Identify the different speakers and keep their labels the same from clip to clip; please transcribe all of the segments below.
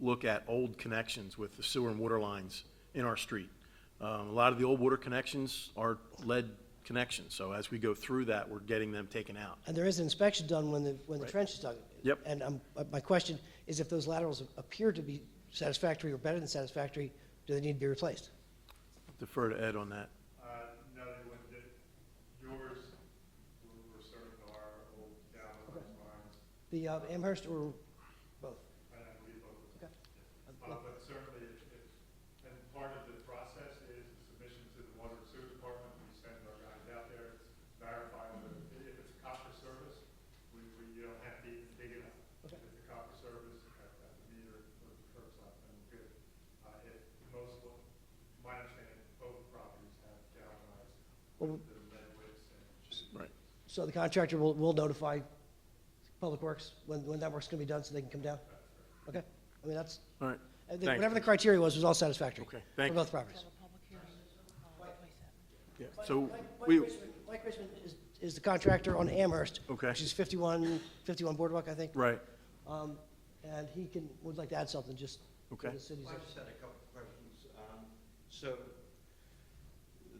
Speaker 1: look at old connections with the sewer and water lines in our street. Um, A lot of the old water connections are lead connections, so as we go through that, we're getting them taken out.
Speaker 2: And there is an inspection done when the, when the trench is dug.
Speaker 1: Yep.
Speaker 2: And um, uh, my question is if those laterals appear to be satisfactory or better than satisfactory, do they need to be replaced?
Speaker 1: Defer to Ed on that.
Speaker 3: Uh, no, they wouldn't, They- yours were were certain are old downward lines,
Speaker 2: The uh, Amherst or both?
Speaker 3: and I believe both of them.
Speaker 2: Okay.
Speaker 3: Uh, but certainly, if, if- and part of the process is the submission to the water and sewer department, we send our guys out there, verify whether, if it's a copper service, we, we, you don't have to even dig it up. If
Speaker 2: Okay.
Speaker 3: it's a copper service, at, at the meter or curbside, then we're good. Uh, if most, of my understanding, both properties have galvanized,
Speaker 2: Well,
Speaker 3: the lead weights and.
Speaker 1: Right.
Speaker 2: So the contractor will, will notify Public Works when, when that work's gonna be done, so they can come down? Okay, I mean, that's,
Speaker 1: All right.
Speaker 2: uh, the-
Speaker 1: Thanks.
Speaker 2: whatever the criteria was, was all satisfactory.
Speaker 1: Okay, thank
Speaker 2: For
Speaker 1: you.
Speaker 2: both properties.
Speaker 4: Have a public hearing on the 27th.
Speaker 1: Yeah. So we,
Speaker 2: Mike Richmond is, is the contractor on Amherst.
Speaker 1: Okay.
Speaker 2: Which is 51 51 Boardwalk, I think.
Speaker 1: right,
Speaker 2: Um, and he can, would like to add something, just. for
Speaker 1: Okay.
Speaker 2: the city's-
Speaker 5: I just had a couple of questions. Um, So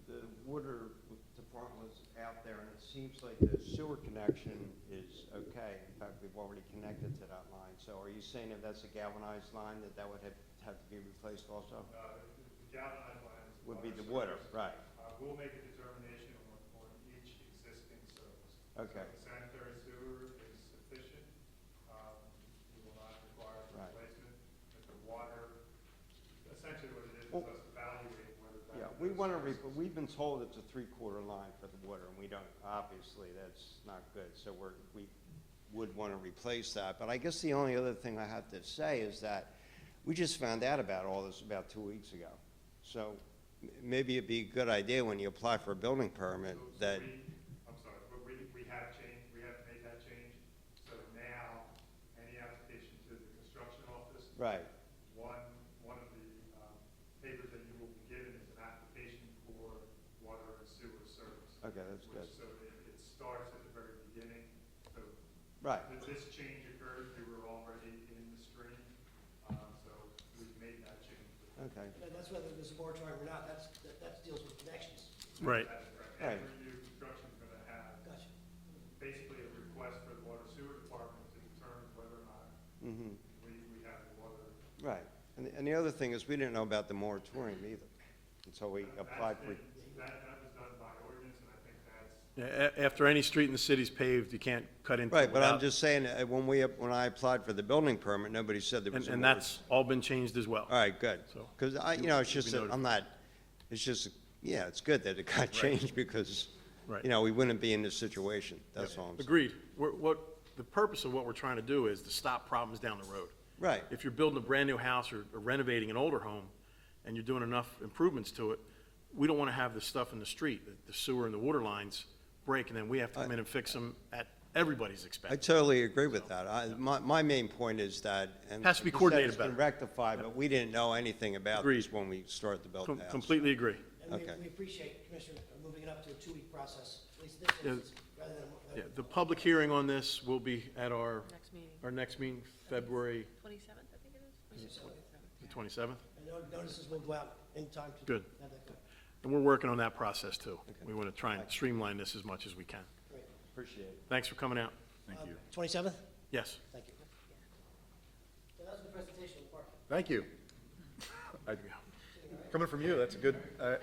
Speaker 5: the water department's out there, and it seems like the sewer connection is okay. In fact, we've already connected to that line. So are you saying if that's a galvanized line, that that would have, have to be replaced also?
Speaker 3: Uh, the the galvanized lines.
Speaker 5: Would be the water, right.
Speaker 3: Uh, we'll make a determination on, on each existing service.
Speaker 5: Okay.
Speaker 3: So Sanitary sewer is sufficient, um, we will not require
Speaker 5: Right.
Speaker 3: replacement, but the water, essentially what it is, is
Speaker 5: Well-
Speaker 3: us evaluating whether that.
Speaker 5: Yeah, we want to, re- we've been told it's a three-quarter line for the water, and we don't, obviously, that's not good. So we're, we would want to replace that. But I guess the only other thing I have to say is that we just found out about all this about two weeks ago. So m- maybe it'd be a good idea when you apply for a building permit
Speaker 3: So- so
Speaker 5: that,
Speaker 3: we- I'm sorry, but we, we have changed, we have made that change, so now, any application to the construction office.
Speaker 5: right,
Speaker 3: One, one of the um, papers that you will be given is an application for water and sewer service.
Speaker 5: Okay, that's
Speaker 3: Which-
Speaker 5: good.
Speaker 3: So it, it starts at the very beginning. So
Speaker 5: right.
Speaker 3: th- this change occurred, we were already in the stream, um, so we've made that change.
Speaker 5: Okay,
Speaker 2: No, That's whether there's a moratorium or not, that's, that, that deals with connections.
Speaker 1: right.
Speaker 3: That's correct.
Speaker 5: Right.
Speaker 3: Every new construction is gonna have
Speaker 2: Gotcha.
Speaker 3: basically a request for the water sewer department to determine whether or not
Speaker 5: mhm,
Speaker 3: we, we have the water.
Speaker 5: right. And, the- and the other thing is, we didn't know about the moratorium either, until we
Speaker 3: That- that's
Speaker 5: applied for.
Speaker 3: been- That, that was done by ordinance, and I think that's
Speaker 1: Yeah, a- After any street in the city's paved, you can't cut into it
Speaker 5: Right, but I'm
Speaker 1: without-
Speaker 5: just saying, uh, when we, when I applied for the building permit, nobody said there was
Speaker 1: And,
Speaker 5: a
Speaker 1: and
Speaker 5: moratorium.
Speaker 1: that's all been changed as well.
Speaker 5: All right, good.
Speaker 1: So-
Speaker 5: Because I, you know, it's just
Speaker 1: we
Speaker 5: that
Speaker 1: noted.
Speaker 5: I'm not, it's just, yeah, it's good that it got changed because,
Speaker 1: Right.
Speaker 5: you know, we wouldn't be in this situation. That's all I'm saying.
Speaker 1: Agreed. We're, what, the purpose of what we're trying to do is to stop problems down the road.
Speaker 5: Right.
Speaker 1: If you're building a brand-new house or or renovating an older home, and you're doing enough improvements to it, we don't want to have the stuff in the street, the- the sewer and the water lines break, and then we have to come in and fix them at everybody's
Speaker 5: I
Speaker 1: expense.
Speaker 5: totally agree with that. I, my, my main point is that, and.
Speaker 1: Has to be
Speaker 5: you said
Speaker 1: coordinated
Speaker 5: It's been
Speaker 1: better.
Speaker 5: rectified, but we didn't know anything about
Speaker 1: Agreed.
Speaker 5: this when we started the building.
Speaker 1: Com- Completely agree.
Speaker 2: And
Speaker 5: Okay.
Speaker 2: we, we appreciate, Commissioner, uh, moving it up to a two-week process, at least in this
Speaker 1: Yeah.
Speaker 2: instance, rather than. uh,
Speaker 1: Yeah, the public hearing on this will be at our,
Speaker 4: Next meeting.
Speaker 1: our next meeting, February
Speaker 4: 27th, I think it is?
Speaker 1: the 27th.
Speaker 2: And no- notices will go out in time to.
Speaker 1: Good.
Speaker 2: have that go.
Speaker 1: And we're working on that process, too. We want to try and streamline this as much as we can.
Speaker 2: Great.
Speaker 5: Appreciate it.
Speaker 1: Thanks for coming out.
Speaker 2: Thank you. Twenty-seventh?
Speaker 1: Yes.
Speaker 2: Thank you. So that was the presentation, of the park.
Speaker 6: Thank you. I- Coming from you, that's a good, uh,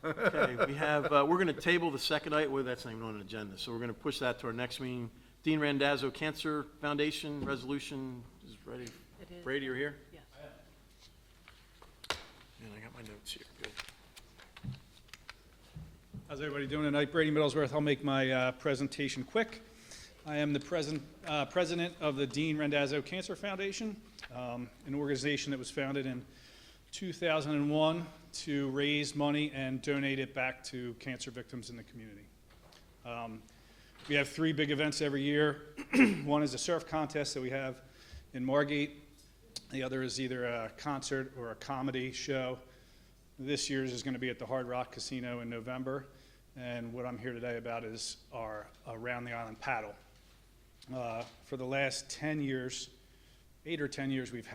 Speaker 1: Okay, we have, uh, we're going to table the second item, well, that's not even on an agenda, so we're going to push that to our next meeting. Dean Randazzo Cancer Foundation Resolution is ready.
Speaker 4: It is.
Speaker 1: Brady, you're here?
Speaker 4: Yes.
Speaker 1: And I got my notes here, good.
Speaker 7: How's everybody doing tonight? Brady Middlesworth. I'll make my uh, presentation quick. I am the present, uh, president of the Dean Rendazzo Cancer Foundation, um, an organization that was founded in 2001 to raise money and donate it back to cancer victims in the community. Um, We have three big events every year. One is a surf contest that we have in Margate. The other is either a concert or a comedy show. This year's is going to be at the Hard Rock Casino in November, and what I'm here today about is our Around the Island paddle. Uh, For the last 10 years, eight or 10 years, we've